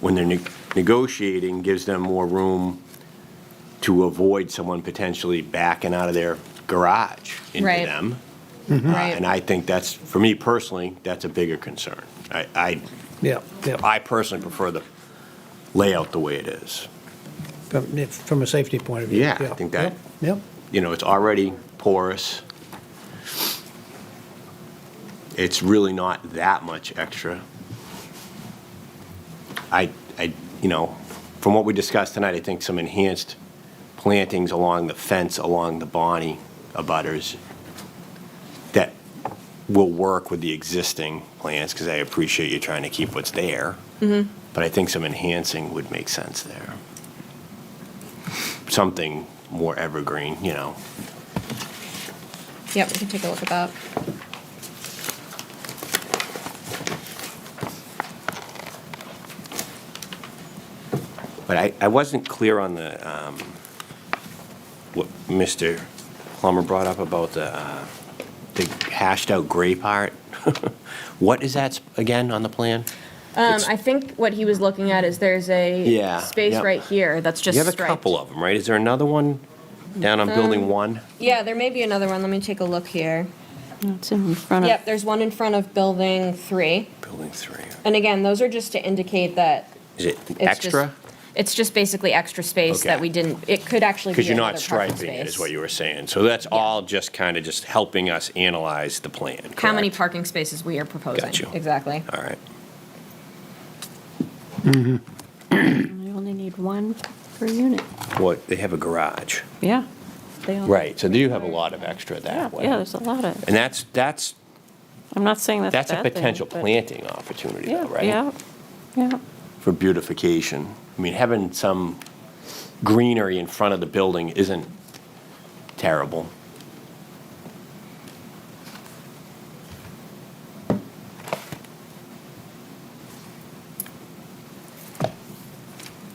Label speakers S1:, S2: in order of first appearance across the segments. S1: when they're ne- negotiating, gives them more room to avoid someone potentially backing out of their garage into
S2: Right.
S1: them. Uh,
S2: Right.
S1: And I think that's, for me personally, that's a bigger concern. I, I,
S3: Yeah, yeah.
S1: I personally prefer the layout the way it is.
S3: From, if- from a safety point of view.
S1: Yeah, I think that-
S3: Yeah, yeah.
S1: you know, it's already porous. It's really not that much extra. I, I, you know, from what we discussed tonight, I think some enhanced plantings along the fence, along the Bonnie abutters that will work with the existing plants, because I appreciate you trying to keep what's there. But I think some enhancing would make sense there something more evergreen, you know.
S2: Yep, we can take a look at that.
S1: But I, I wasn't clear on the, um, what Mr. Plummer brought up about the, uh, the hashed out gray part. What is that sp- again on the plan?
S2: Um,
S1: It's-
S2: I think what he was looking at is there's a
S1: Yeah,
S2: space
S1: yep.
S2: right here that's just
S1: You have a
S2: striped. Um,
S1: couple of them, right? Is there another one down on building one?
S2: Yeah, there may be another one. Let me take a look here.
S4: It's in front of.
S2: Yep, there's one in front of building three.
S1: Building three.
S2: And again, those are just to indicate that
S1: Is it
S2: it's just,
S1: extra?
S2: it's just basically extra space that
S1: Okay.
S2: we didn't, it could actually be
S1: Because you're
S2: another
S1: not
S2: parking space.
S1: striping it, is what you were saying. So that's all just kind of just helping us analyze the plan,
S2: How many
S1: correct?
S2: parking spaces we are proposing.
S1: Got you.
S2: Exactly.
S1: All right.
S4: We only need one per unit.
S1: What, they have a garage.
S4: Yeah.
S2: Oh.
S4: They all-
S1: Right, so they do have a lot of extra
S4: Yeah,
S1: that way.
S4: yeah, there's a lot of,
S1: And that's, that's,
S4: I'm not saying that's a bad
S1: that's a
S4: thing,
S1: potential
S4: but-
S1: planting opportunity
S4: Yeah,
S1: though, right?
S4: Yeah, yeah.
S1: For beautification. I mean, having some greenery in front of the building isn't terrible.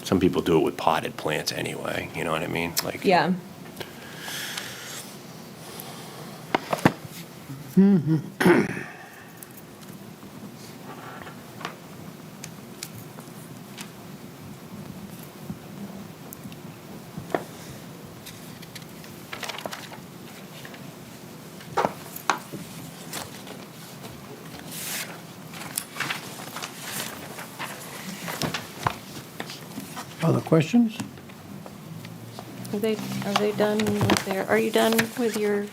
S1: Some people do it with potted plants anyway, you know what I mean? Like,
S2: Yeah.
S3: Other questions?
S4: Are they, are they done with their, are you done with your?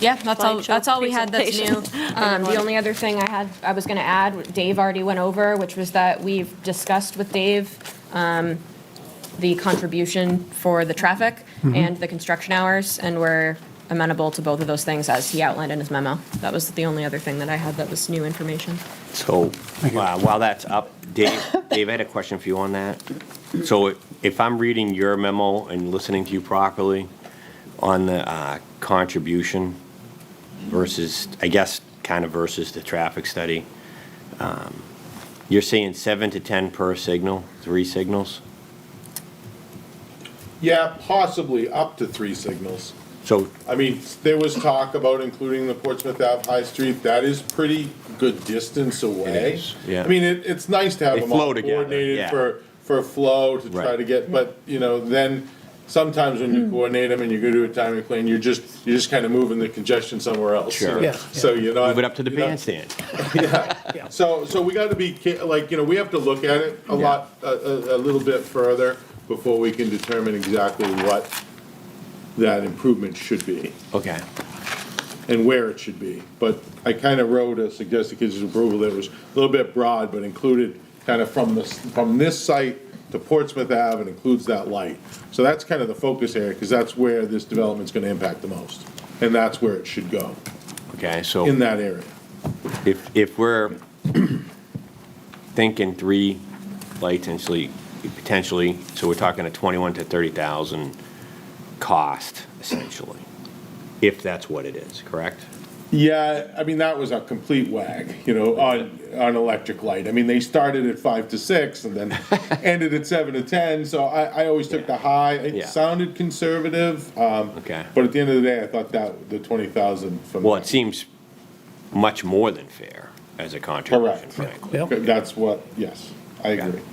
S2: Yeah, that's all,
S4: slideshow
S2: that's all we had that's new.
S4: presentation.
S2: Um, The only other thing I had, I was going to add, Dave already went over, which was that we've discussed with Dave um, the contribution for the traffic and the construction hours, and we're amenable to both of those things as he outlined in his memo. That was the only other thing that I had that was new information.
S1: So uh, while that's up, Dave, Dave, I had a question for you on that. So i- if I'm reading your memo and listening to you properly on the uh, contribution versus, I guess, kind of versus the traffic study, um, you're saying seven to 10 per signal, three signals?
S5: Yeah, possibly up to three signals.
S1: So,
S5: I mean, there was talk about including the Portsmouth Ave High Street. That is pretty good distance away.
S1: is, yeah.
S5: I mean, it, it's nice to have
S1: They
S5: them all
S1: flow together,
S5: coordinated
S1: yeah.
S5: for, for flow to try
S1: Right.
S5: to get, but, you know, then sometimes when you coordinate them and you go to a timing plan, you're just, you're just kind of moving the congestion somewhere else. you
S1: Sure.
S5: know?
S3: Yeah.
S5: So you're not.
S1: move it up to the
S5: you're not-
S1: bandstand.
S5: so, so we gotta be, ca- like, you know, we have to look at it a
S1: Yeah.
S5: lot, a, a, a little bit further before we can determine exactly what that improvement should be
S1: Okay.
S5: and where it should be. But I kinda wrote a suggested conditions of approval that was a little bit broad, but included kinda from this, from this site to Portsmouth Ave and includes that light. So that's kind of the focus area, cause that's where this development's gonna impact the most. And that's where it should go,
S1: Okay, so.
S5: in that area.
S1: If, if we're thinking three lights potentially, potentially, so we're talking a twenty-one to thirty thousand cost essentially, if that's what it is, correct?
S5: Yeah, I mean, that was a complete wag, you know, on, on electric light. I mean, they started at five to six and then ended at seven to ten, so I, I always took the high.
S1: Yeah.
S5: It sounded conservative, um,
S1: Okay.
S5: but at the end of the day, I thought that, the twenty thousand from.
S1: Well, it seems much more than fair as a contribution,
S5: Correct.
S1: frankly.
S3: Yeah.
S5: That's what, yes, I agree.